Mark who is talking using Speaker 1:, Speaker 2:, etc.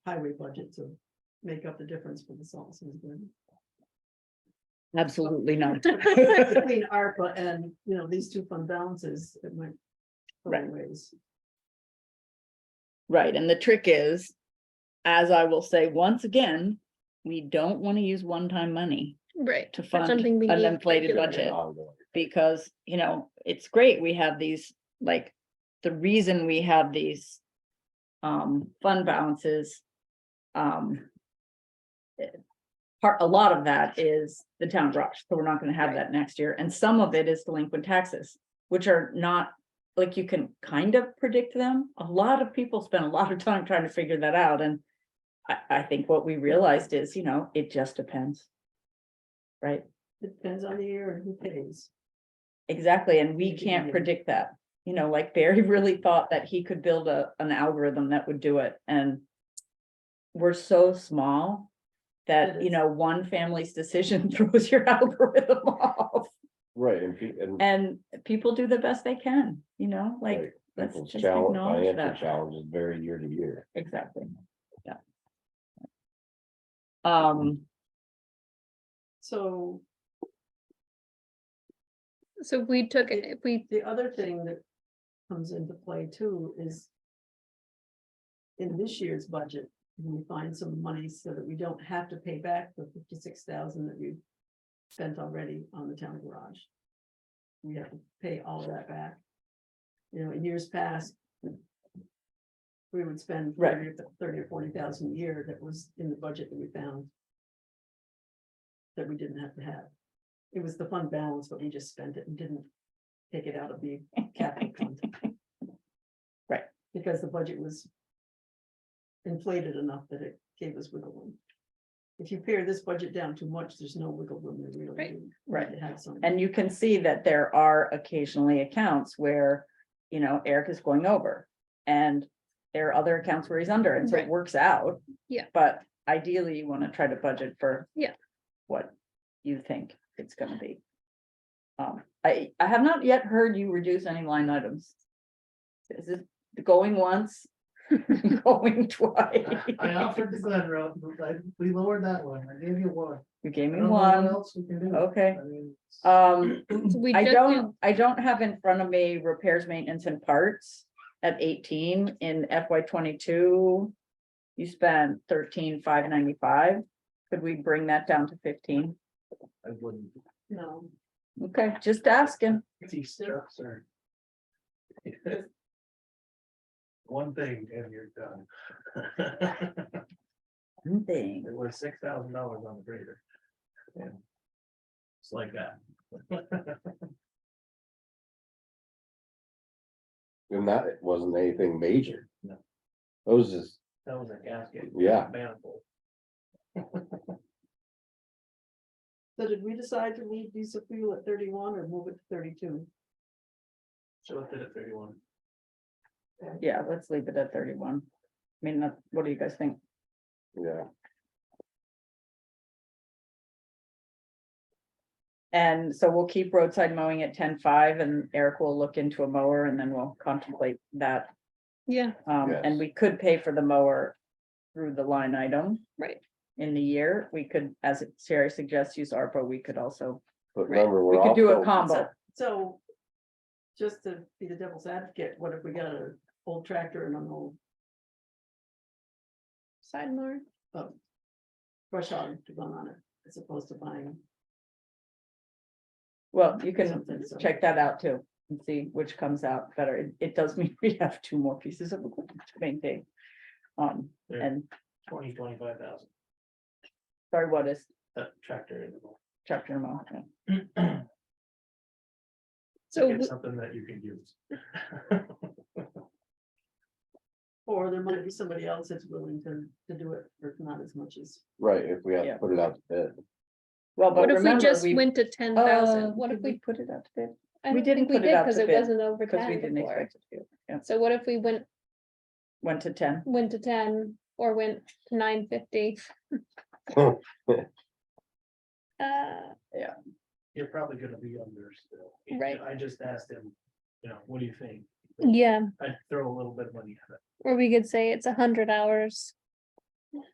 Speaker 1: highway budget to make up the difference for the salt. and
Speaker 2: Absolutely not.
Speaker 1: Between ARPA and, you know, these two fund balances, it might. go
Speaker 2: Right.
Speaker 1: ways.
Speaker 2: Right, and the trick is, as I will say once again, we don't want to use one-time money
Speaker 3: Right.
Speaker 2: to
Speaker 3: that's
Speaker 2: fund
Speaker 3: something we
Speaker 2: an
Speaker 3: need
Speaker 2: inflated
Speaker 3: regularly.
Speaker 2: budget. Because, you know, it's great, we have these, like, the reason we have these um, fund balances. Um. eh, Part, a lot of that is the town rush, so we're not gonna have that next year, and some of it is delinquent taxes, which are not. Like you can kind of predict them, a lot of people spend a lot of time trying to figure that out, and. I, I think what we realized is, you know, it just depends. Right?
Speaker 1: It Depends on the year and who pays.
Speaker 2: Exactly, and we
Speaker 1: Maybe we
Speaker 2: can't
Speaker 1: didn't.
Speaker 2: predict that. You know, like Barry really thought that he could build a, an algorithm that would do it and. We're so small that,
Speaker 1: It
Speaker 2: you
Speaker 1: is.
Speaker 2: know, one family's decision throws your algorithm off.
Speaker 4: Right, and, pe- and.
Speaker 2: And people do the best they can, you know, like,
Speaker 4: right,
Speaker 2: let's
Speaker 4: people's
Speaker 2: just
Speaker 4: challenge-
Speaker 2: acknowledge
Speaker 4: financial
Speaker 2: that.
Speaker 4: Challenges vary year to year.
Speaker 2: exactly, yeah. Um,
Speaker 1: So
Speaker 3: So we took it, if we,
Speaker 1: the other thing that comes into play too is. In this year's budget, we find some money so that we don't have to pay back the fifty-six thousand that we spent already on the town garage. We have to pay all of that back. You know, in years past. We would spend
Speaker 2: Right.
Speaker 1: thirty, or- thirty or forty thousand a year that was in the budget that we found. That we didn't have to have. It was the fund balance, but we just spent it and didn't take it out of the capital fund.
Speaker 2: Right.
Speaker 1: Because the budget was inflated enough that it gave us wiggle room. If you pare this budget down too much, there's no wiggle room there really.
Speaker 3: Right.
Speaker 1: is. You
Speaker 2: Right.
Speaker 1: have to have some.
Speaker 2: And you can see that there are occasionally accounts where, you know, Eric is going over. And there are other accounts where he's under, and so it
Speaker 3: Right.
Speaker 2: works out.
Speaker 3: Yeah.
Speaker 2: But ideally, you wanna try to budget for.
Speaker 3: Yeah.
Speaker 2: What you think it's gonna be. Um, I, I have not yet heard you reduce any line items. Is it going once? Going twice?
Speaker 5: I offered the Glen Road, but I- we lowered that one, I gave you one.
Speaker 2: You gave
Speaker 5: I
Speaker 2: me
Speaker 5: don't know what
Speaker 2: one,
Speaker 5: else we can do.
Speaker 2: okay,
Speaker 5: I mean, it's-
Speaker 2: um.
Speaker 3: so we
Speaker 2: I
Speaker 3: just did,
Speaker 2: don't, I don't have in front of me repairs, maintenance and parts at eighteen in FY twenty-two. You spent thirteen, five ninety-five. Could we bring that down to fifteen?
Speaker 5: I wouldn't.
Speaker 1: No,
Speaker 2: Okay, just asking.
Speaker 5: These trucks are. One thing and you're done.
Speaker 2: One Thing.
Speaker 5: It was six thousand dollars on the grader. And It's like that.
Speaker 4: And that it wasn't anything major.
Speaker 5: No.
Speaker 4: Those is,
Speaker 5: That was a gasket.
Speaker 4: Yeah.
Speaker 5: Manifold.
Speaker 1: so did we decide to leave diesel fuel at thirty-one or move it to thirty-two?
Speaker 5: So it did at thirty-one.
Speaker 2: Yeah, let's leave it at thirty-one. I mean, that- what do you guys think?
Speaker 4: yeah,
Speaker 2: And so we'll keep roadside mowing at ten-five and Eric will look into a mower and then we'll contemplate that.
Speaker 3: yeah,
Speaker 2: Um, and
Speaker 4: Yes.
Speaker 2: we could pay for the mower through the line item.
Speaker 3: right,
Speaker 2: in the year, we could, as Sherry suggests, use ARPA, we could also,
Speaker 4: but
Speaker 3: Right.
Speaker 4: remember,
Speaker 2: we
Speaker 4: we're
Speaker 2: could do a
Speaker 4: also,
Speaker 2: combo.
Speaker 1: So just to be the devil's advocate, what if we got an old tractor and an old
Speaker 3: side more,
Speaker 1: um, brush hog to run on it as opposed to buying?
Speaker 2: Well, you can
Speaker 1: Something, so-
Speaker 2: check that out too and see which comes out better. It, it does mean we have two more pieces of equipment to maintain. Um,
Speaker 5: There.
Speaker 2: and
Speaker 5: Twenty, twenty-five thousand,
Speaker 2: sorry, what is
Speaker 5: that tractor. in the morning.
Speaker 2: chapter and amount?
Speaker 3: so
Speaker 5: Get
Speaker 3: we-
Speaker 5: Something that you can use.
Speaker 1: Or there might be somebody else that's willing to, to do it for not as much as.
Speaker 4: right, if we have
Speaker 2: Yeah.
Speaker 4: to put it out to bid.
Speaker 2: Well, but
Speaker 3: what if we
Speaker 2: remember,
Speaker 3: just
Speaker 2: we.
Speaker 3: went to ten
Speaker 2: uh,
Speaker 3: thousand, what if
Speaker 2: did
Speaker 3: we?
Speaker 2: Put it out to bid,
Speaker 3: I
Speaker 2: we
Speaker 3: don't
Speaker 2: didn't
Speaker 3: think we
Speaker 2: put it
Speaker 3: did
Speaker 2: out
Speaker 3: because
Speaker 2: to
Speaker 3: it
Speaker 2: bid
Speaker 3: wasn't over
Speaker 2: because we
Speaker 3: ten
Speaker 2: didn't
Speaker 3: before,
Speaker 2: expect it to, yeah,
Speaker 3: so what if we went,
Speaker 2: went to ten,
Speaker 3: went to ten or went to nine fifty? Uh,
Speaker 4: Oh.
Speaker 5: You're probably gonna be under still. You know,
Speaker 3: Right.
Speaker 5: I just asked him, you know, what do you think?
Speaker 3: yeah,
Speaker 5: I'd throw a little bit of money at it.
Speaker 3: or we could say it's a hundred hours